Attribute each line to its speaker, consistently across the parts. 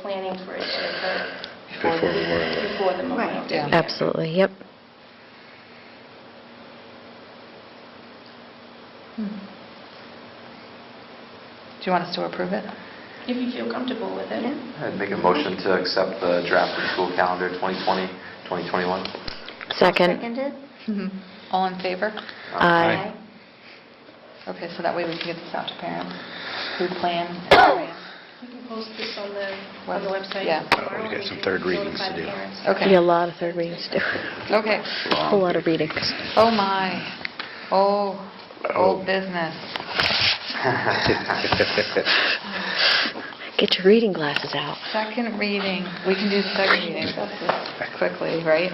Speaker 1: planning for it to occur
Speaker 2: Before the Memorial Day.
Speaker 1: before the Memorial
Speaker 3: Right,
Speaker 1: Day.
Speaker 3: yeah.
Speaker 4: Absolutely, yep.
Speaker 3: Hmm. Do you want us to approve it?
Speaker 1: If you feel comfortable with it.
Speaker 3: Yeah.
Speaker 5: I'd make a motion to accept the draft of the school calendar 2020-2021.
Speaker 4: Second.
Speaker 1: Seconded?
Speaker 3: All in favor?
Speaker 4: Aye.
Speaker 3: Okay, so that way we can get this out to parents who plan. and plan.
Speaker 1: We can post this on the, on the
Speaker 3: Web-
Speaker 1: website.
Speaker 3: yeah.
Speaker 1: tomorrow.
Speaker 2: We've got some
Speaker 1: can
Speaker 2: third readings to
Speaker 1: notify the
Speaker 2: do.
Speaker 1: parents.
Speaker 4: Be a
Speaker 3: Okay,
Speaker 4: lot of third readings to do.
Speaker 3: okay.
Speaker 4: A lot of readings.
Speaker 3: Oh, my. Oh,
Speaker 2: Oh.
Speaker 3: old business.
Speaker 4: Get your reading glasses out.
Speaker 3: Second reading, we can do the second reading quickly, right?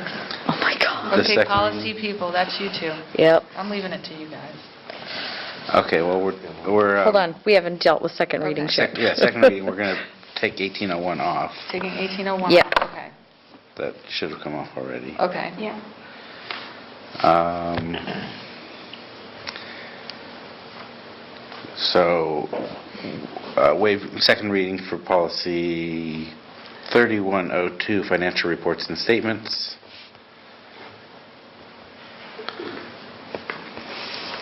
Speaker 4: Oh, my God.
Speaker 2: The
Speaker 3: Okay,
Speaker 2: second
Speaker 3: policy
Speaker 2: reading.
Speaker 3: people, that's you two.
Speaker 4: Yep.
Speaker 3: I'm leaving it to you guys.
Speaker 6: Okay, well, we're, we're... uh,
Speaker 4: Hold on, we haven't dealt with second readings yet.
Speaker 6: sec- Yeah, second reading, we're going to take 1801 off.
Speaker 3: Taking 1801?
Speaker 4: Yeah.
Speaker 3: Okay,
Speaker 6: That should have come off already.
Speaker 3: okay.
Speaker 1: Yeah.
Speaker 4: Oh.
Speaker 6: Um, So, uh, waive, second reading for policy 3102, financial reports and statements.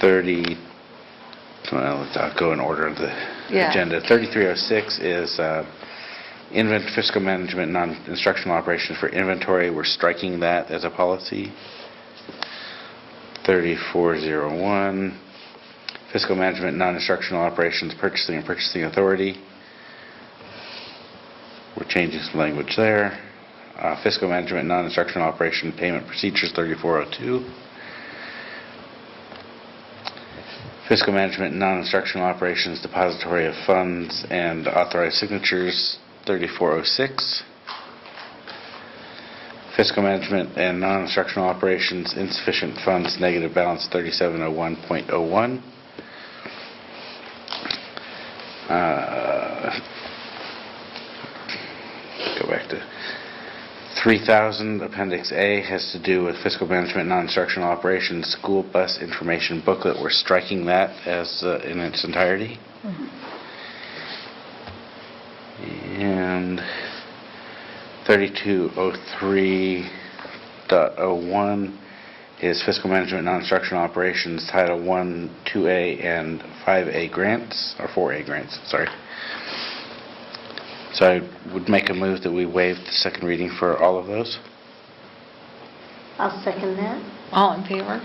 Speaker 6: 30, well, let's uh, go in order of the
Speaker 3: Yeah.
Speaker 6: agenda. 3306 is uh, invent fiscal management, non-instructional operations for inventory. We're striking that as a policy. 3401, fiscal management, non-instructional operations, purchasing and purchasing authority. We're changing some language there. Uh, Fiscal management, non-instructional operation, payment procedures, 3402. Fiscal management, non-instructional operations, depository of funds, and authorized signatures, 3406. Fiscal management and non-instructional operations, insufficient funds, negative balance 3701.01. Uh, Go back to 3,000, Appendix A has to do with fiscal management, non-instructional operations, school bus information booklet. We're striking that as, uh, in its entirety. And 3203.01 is fiscal management, non-instructional operations, Title I, 2A, and 5A grants, or 4A grants, sorry. So I would make a move that we waive the second reading for all of those.
Speaker 1: I'll second that.
Speaker 3: All in favor?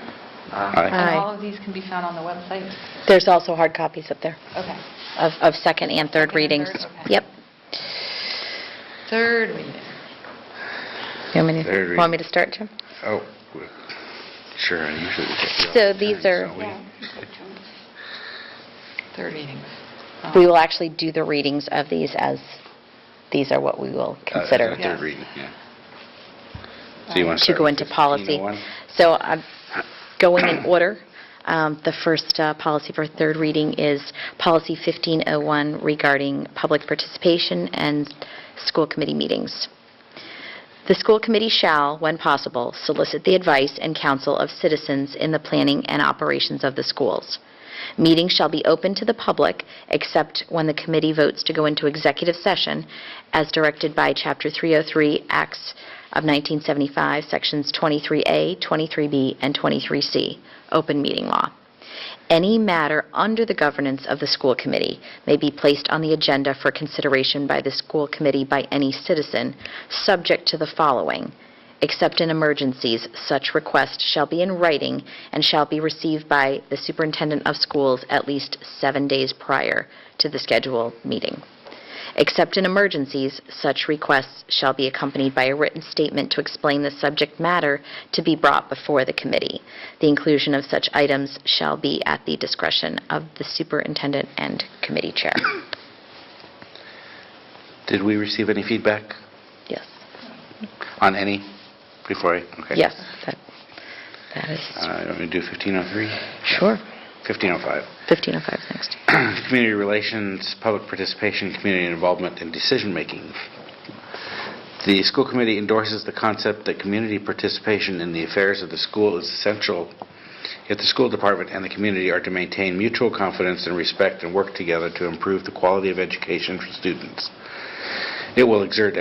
Speaker 6: Aye.
Speaker 3: And all of these can be found on the website?
Speaker 4: There's also hard copies up there
Speaker 3: Okay.
Speaker 4: of, of
Speaker 3: Second
Speaker 4: second and
Speaker 3: and
Speaker 4: third
Speaker 3: third,
Speaker 4: readings.
Speaker 3: okay.
Speaker 4: Yep.
Speaker 3: Third reading.
Speaker 4: You want
Speaker 6: Third
Speaker 4: me to,
Speaker 6: reading.
Speaker 4: want me to start, Jim?
Speaker 6: Oh, w- sure, I usually we get the
Speaker 4: So
Speaker 6: opportunities,
Speaker 4: these are-
Speaker 6: don't we?
Speaker 3: Third readings.
Speaker 4: We will actually do the readings of these as, these are what we will
Speaker 6: Uh,
Speaker 4: consider. Uh,
Speaker 6: uh, Third
Speaker 3: Yes.
Speaker 6: reading, yeah. So you want
Speaker 4: to
Speaker 6: start
Speaker 4: go
Speaker 6: with
Speaker 4: into policy.
Speaker 6: 1501?
Speaker 4: So I'm going in order. Um, The first uh, policy for third reading is Policy 1501 regarding public participation and school committee meetings. The school committee shall, when possible, solicit the advice and counsel of citizens in the planning and operations of the schools. Meetings shall be open to the public except when the committee votes to go into executive session as directed by Chapter 303, Acts of 1975, Sections 23A, 23B, and 23C, Open Meeting Law. Any matter under the governance of the school committee may be placed on the agenda for consideration by the school committee by any citizen, subject to the following. Except in emergencies, such request shall be in writing and shall be received by the superintendent of schools at least seven days prior to the scheduled meeting. Except in emergencies, such requests shall be accompanied by a written statement to explain the subject matter to be brought before the committee. The inclusion of such items shall be at the discretion of the superintendent and committee chair.
Speaker 6: Did we receive any feedback
Speaker 4: Yes,
Speaker 6: on any before I, okay.
Speaker 4: yes, that, that is,
Speaker 6: Uh, you want me to do 1503?
Speaker 4: sure.
Speaker 6: 1505.
Speaker 4: 1505 is next.
Speaker 6: Community relations, public participation, community involvement, and decision-making. The school committee endorses the concept that community participation in the affairs of the school is essential if the school department and the community are to maintain mutual confidence and respect and work together to improve the quality of education for students. It will exert